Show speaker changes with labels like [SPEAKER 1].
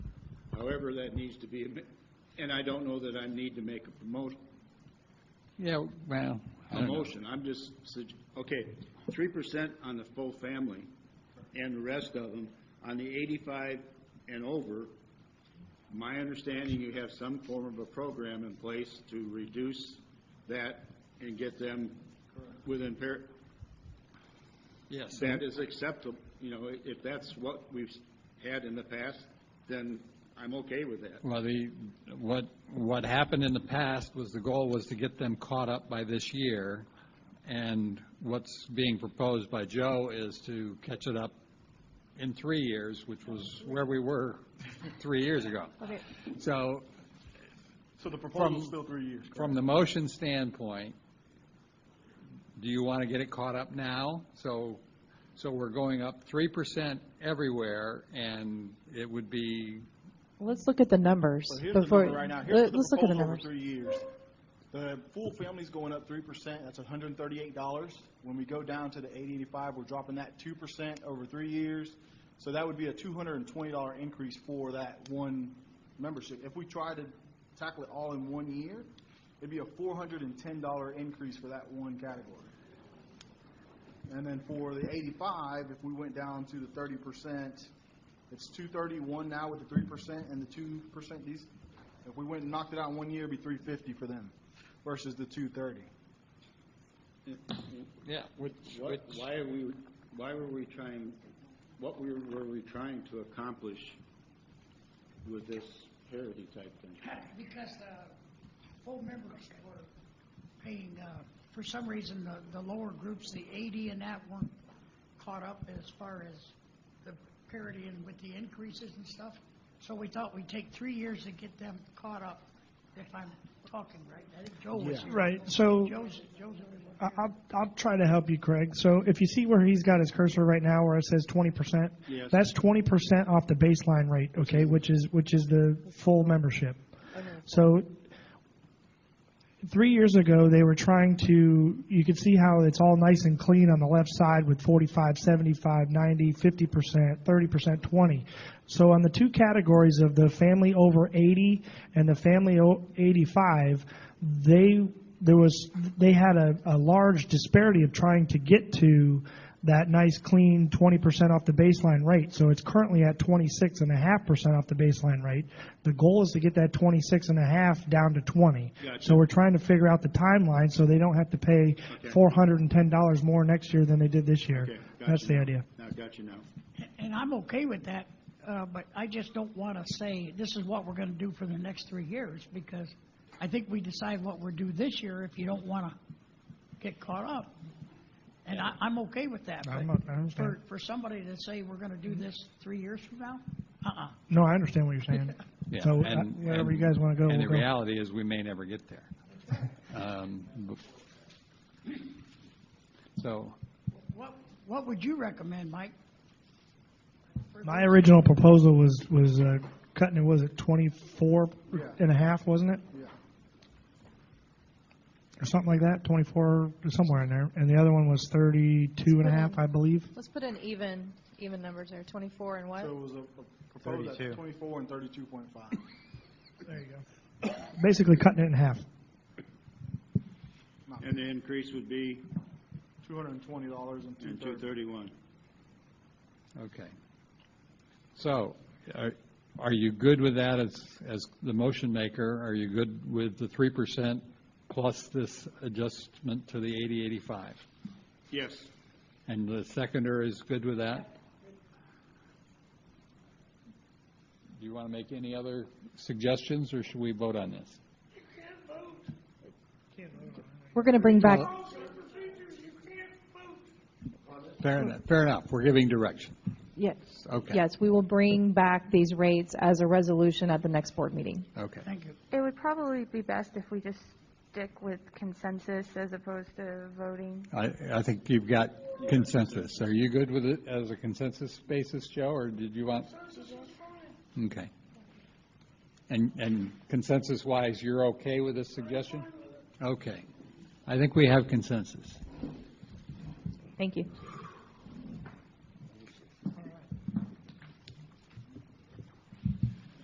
[SPEAKER 1] However, that needs to be, am- and I don't know that I need to make a promotion,
[SPEAKER 2] Yeah, well, I
[SPEAKER 1] a
[SPEAKER 2] don't know.
[SPEAKER 1] motion, I'm just, sug- okay, three percent on the full family and the rest of them, on the eighty-five and over, my understanding, you have some form of a program in place to reduce that and get them within par,
[SPEAKER 2] Yes.
[SPEAKER 1] that is acceptable, you know, i- if that's what we've had in the past, then I'm okay with that.
[SPEAKER 2] Well, the, what, what happened in the past was the goal was to get them caught up by this year, and what's being proposed by Joe is to catch it up in three years, which was where we were three years ago.
[SPEAKER 3] Okay.
[SPEAKER 2] So,
[SPEAKER 4] So the proposal's
[SPEAKER 2] From-
[SPEAKER 4] still three years.
[SPEAKER 2] from the motion standpoint, do you want to get it caught up now? So, so we're going up three percent everywhere, and it would be
[SPEAKER 3] Let's look at the numbers
[SPEAKER 4] So here's the
[SPEAKER 3] before.
[SPEAKER 4] number right now. Here's
[SPEAKER 3] Let-
[SPEAKER 4] the
[SPEAKER 3] Let's look at the
[SPEAKER 4] proposal over three
[SPEAKER 3] numbers.
[SPEAKER 4] years. The full family's going up three percent, that's hundred and thirty-eight dollars. When we go down to the eight eighty-five, we're dropping that two percent over three years. So that would be a two hundred and twenty dollar increase for that one membership. If we try to tackle it all in one year, it'd be a four hundred and ten dollar increase for that one category. And then for the eighty-five, if we went down to the thirty percent, it's two thirty-one now with the three percent and the two percent, these, if we went and knocked it out in one year, it'd be three fifty for them versus the two thirty.
[SPEAKER 2] Yeah, which,
[SPEAKER 1] What, why are we, why were we trying, what we were, were we trying to accomplish with this parity type thing?
[SPEAKER 5] Because the full members were paying, uh, for some reason, the, the lower groups, the eighty and that weren't caught up as far as the parity and with the increases and stuff. So we thought we'd take three years to get them caught up, if I'm talking right. I think Joe was here.
[SPEAKER 6] Right, so-
[SPEAKER 5] Joe's, Joe's the only one
[SPEAKER 6] I-
[SPEAKER 5] here.
[SPEAKER 6] I'll, I'll try to help you, Craig. So if you see where he's got his cursor right now, where it says twenty percent,
[SPEAKER 1] Yes.
[SPEAKER 6] that's twenty percent off the baseline rate, okay, which is which is the full membership. So three years ago, they were trying to. You could see how it's all nice and clean on the left side with 45, 75, 90, 50 percent, 30 percent, 20. So on the two categories of the family over 80 and the family o- 85, they there was they had a, a large disparity of trying to get to that nice clean 20% off the baseline rate. So it's currently at 26.5% off the baseline rate. The goal is to get that 26.5 down to 20.
[SPEAKER 1] Gotcha.
[SPEAKER 6] So we're trying to figure out the timeline so they don't have to pay $410 more next year than they did this year.
[SPEAKER 1] Okay, got
[SPEAKER 6] That's
[SPEAKER 1] you
[SPEAKER 6] the
[SPEAKER 1] now.
[SPEAKER 6] idea.
[SPEAKER 1] Now, got you now.
[SPEAKER 5] And I'm okay with that, uh, but I just don't want to say, this is what we're going to do for the next three years, because I think we decide what we're due this year if you don't want to get caught up. And I, I'm okay with that, but
[SPEAKER 6] I'm not- I understand.
[SPEAKER 5] for, for somebody to say we're going to do this three years from now, uh-uh.
[SPEAKER 6] No, I understand what you're saying.
[SPEAKER 2] Yeah,
[SPEAKER 6] So uh,
[SPEAKER 2] and-
[SPEAKER 6] wherever
[SPEAKER 2] and-
[SPEAKER 6] you guys want to go,
[SPEAKER 2] And
[SPEAKER 6] we'll
[SPEAKER 2] the
[SPEAKER 6] go.
[SPEAKER 2] reality is, we may never get there. Um, bef- So,
[SPEAKER 5] What, what would you recommend, Mike?
[SPEAKER 6] My original proposal was, was uh, cutting it, was it 24 and a half, wasn't it?
[SPEAKER 4] Yeah.
[SPEAKER 6] Or something like that, 24, somewhere in there. And the other one was 32 and a half, I believe.
[SPEAKER 3] Let's put in even, even numbers there, 24 and what?
[SPEAKER 4] So it was a- a proposed at twenty-four and thirty-two point five.
[SPEAKER 6] There you go. Basically cutting it in half.
[SPEAKER 1] And the increase would be
[SPEAKER 4] Two hundred and twenty dollars and two
[SPEAKER 1] two
[SPEAKER 4] thirty.
[SPEAKER 1] thirty-one.
[SPEAKER 2] okay. So, are, are you good with that as, as the motion maker? Are you good with the three percent plus this adjustment to the eighty, eighty-five?
[SPEAKER 1] Yes,
[SPEAKER 2] And the seconder is good with that? Do you want to make any other suggestions, or should we vote on this?
[SPEAKER 3] We're going to bring back,
[SPEAKER 2] Fair enough, fair enough. We're giving direction.
[SPEAKER 3] yes,
[SPEAKER 2] Okay.
[SPEAKER 3] yes, we will bring back these rates as a resolution at the next board meeting.
[SPEAKER 2] Okay.
[SPEAKER 5] Thank you.
[SPEAKER 7] It would probably be best if we just stick with consensus as opposed to voting.
[SPEAKER 2] I, I think you've got consensus. Are you good with it as a consensus basis, Joe, or did you want? Okay. And, and consensus-wise, you're okay with this suggestion? Okay. I think we have consensus.
[SPEAKER 3] Thank you.